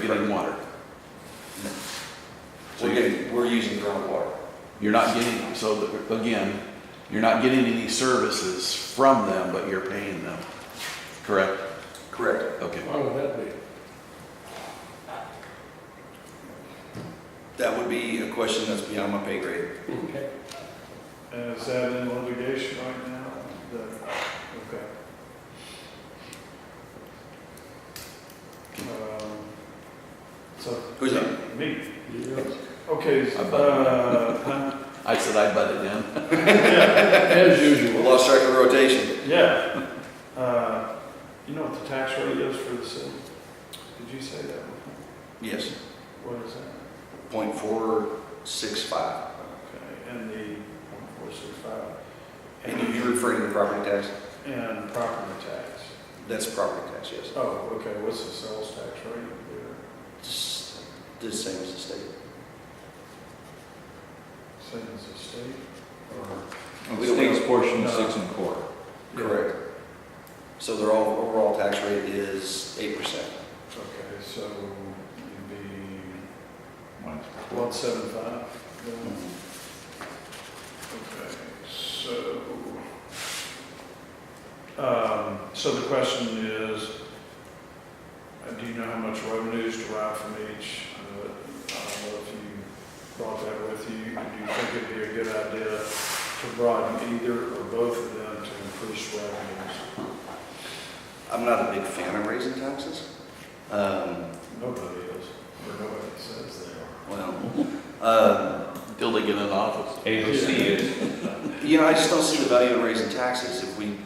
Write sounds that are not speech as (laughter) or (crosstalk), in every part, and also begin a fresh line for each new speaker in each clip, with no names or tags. getting water.
So you're, we're using groundwater.
You're not getting, so the- again, you're not getting any services from them, but you're paying them, correct?
Correct.
Okay.
Why would that be?
That would be a question that's beyond my pay grade.
Okay.
And is that in litigation right now? The- Okay. Um, So,
Who's that?
me,
Yeah.
okay,
I bet.
uh,
(laughs)
I said I butted in.
yeah,
As usual.
Lost track of rotation.
yeah. Uh, You know what the tax rate is for the city? Did you say that before?
Yes,
What is that?
point four six five.
Okay, and the one four six five.
And you're referring to property tax?
And property tax.
That's property tax, yes.
Oh, okay, what's the sales tax rate there?
It's the same as the state.
Same as the state?
We don't- we don't-
portion,
is six
and a quarter.
Correct. So their all, overall tax rate is eight percent.
Okay, so it'd be
Mine's
one seven five then?
Mm-hmm.
Okay, so, um, so the question is, uh, do you know how much revenue is derived from each? I know that- I don't know if you brought that with you. Do you think it'd be a good idea to broaden either or both of them to increase revenues?
I'm not a big fan of raising taxes. Um,
Nobody is, or nobody says they are.
well, um,
Until they get in office.
AOC is,
You know, I just don't see the value in raising taxes. If we,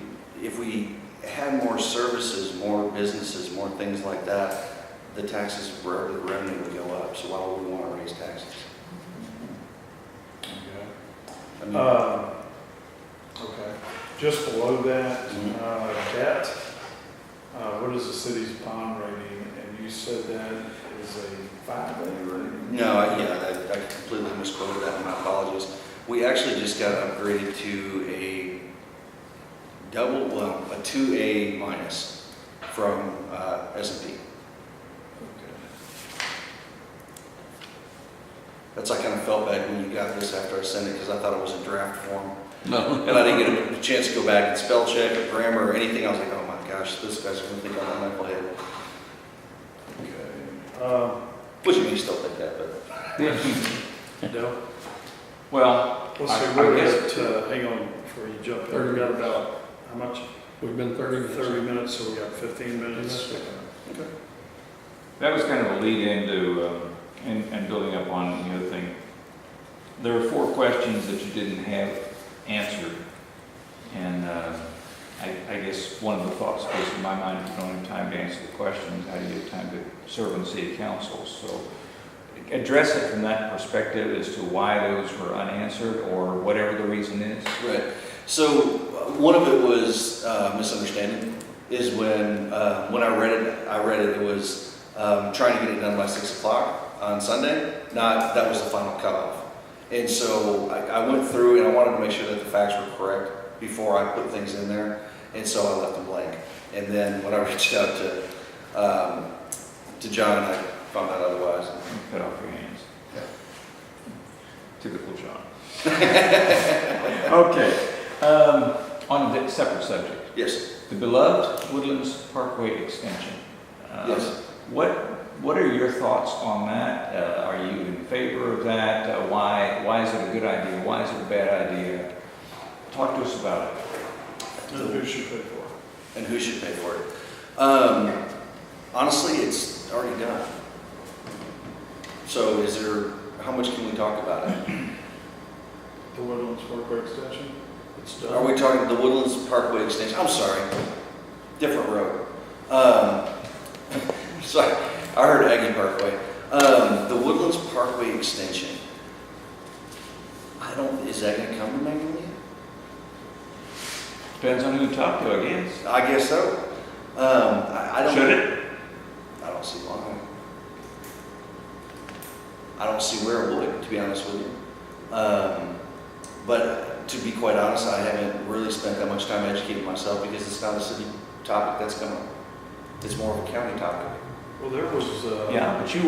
if we had more services, more businesses, more things like that, the taxes, the revenue would go up. So why would we want to raise taxes?
Okay.
I mean,
Um, Okay, just below that,
Mhm.
uh, debt, uh, what is the city's bond rating? And you said that is a five A rating?
No, I- yeah, I- I completely misquoted that, my apologies. We actually just got upgraded to a double, well, a 2A minus from uh, S&P.
Okay.
That's, I kind of felt bad when you got this after I sent it because I thought it was in draft form.
No.
And I didn't get a chance to go back and spell check or grammar or anything. I was like, oh my gosh, this guy's gonna think I'm a knucklehead.
Okay, um,
Which you still think that, but
Dale,
well,
let's
I-
see,
I
we're
guess-
at, uh, hang on before you jump there, we got about, how much?
We've been thirty minutes.
Thirty minutes, so we got fifteen minutes.
that was kind of a lead into, um, and, and building up on the other thing. There were four questions that you didn't have answered. And, uh, I, I guess one of the thoughts goes in my mind, if you don't have time to answer the questions, how do you have time to serve on city council? So address it from that perspective as to why those were unanswered or whatever the reason is.
right. So uh, one of it was uh, misunderstanding. Is when uh, when I read it, I read it. It was um, trying to get it done by six o'clock on Sunday. Not that was the final cutoff. And so I, I went through and I wanted to make sure that the facts were correct before I put things in there. And so I left them blank. And then when I (laughs) reached out to um, to John, I found out otherwise.
Cut off your hands. Typical John. (laughs) Okay, um, on a di- separate subject,
Yes,
the beloved Woodlands Parkway extension. Uh,
yes.
What, what are your thoughts on that? Uh, are you in favor of that? Uh, why, why is it a good idea? Why is it a bad idea? Talk to us about it.
And who should pay for it?
And who should pay for it? Um, honestly, it's already done. So is there, how much can we talk about it?
The Woodlands Parkway Extension? It's done.
Are we talking the Woodlands Parkway extension? I'm sorry, different road. Um, (laughs) sorry, I heard Aggie Parkway. Um, the Woodlands Parkway extension. I don't, is that gonna come to Magnolia?
Depends on who you talk to, I guess.
I guess so. Um, I, I don't.
Should it?
I don't see why. I don't see where it would, to be honest with you. Um, but to be quite honest, I haven't really spent that much time educating myself because it's not a city topic that's coming. It's more of a county topic.
Well, there was, uh.
Yeah, but you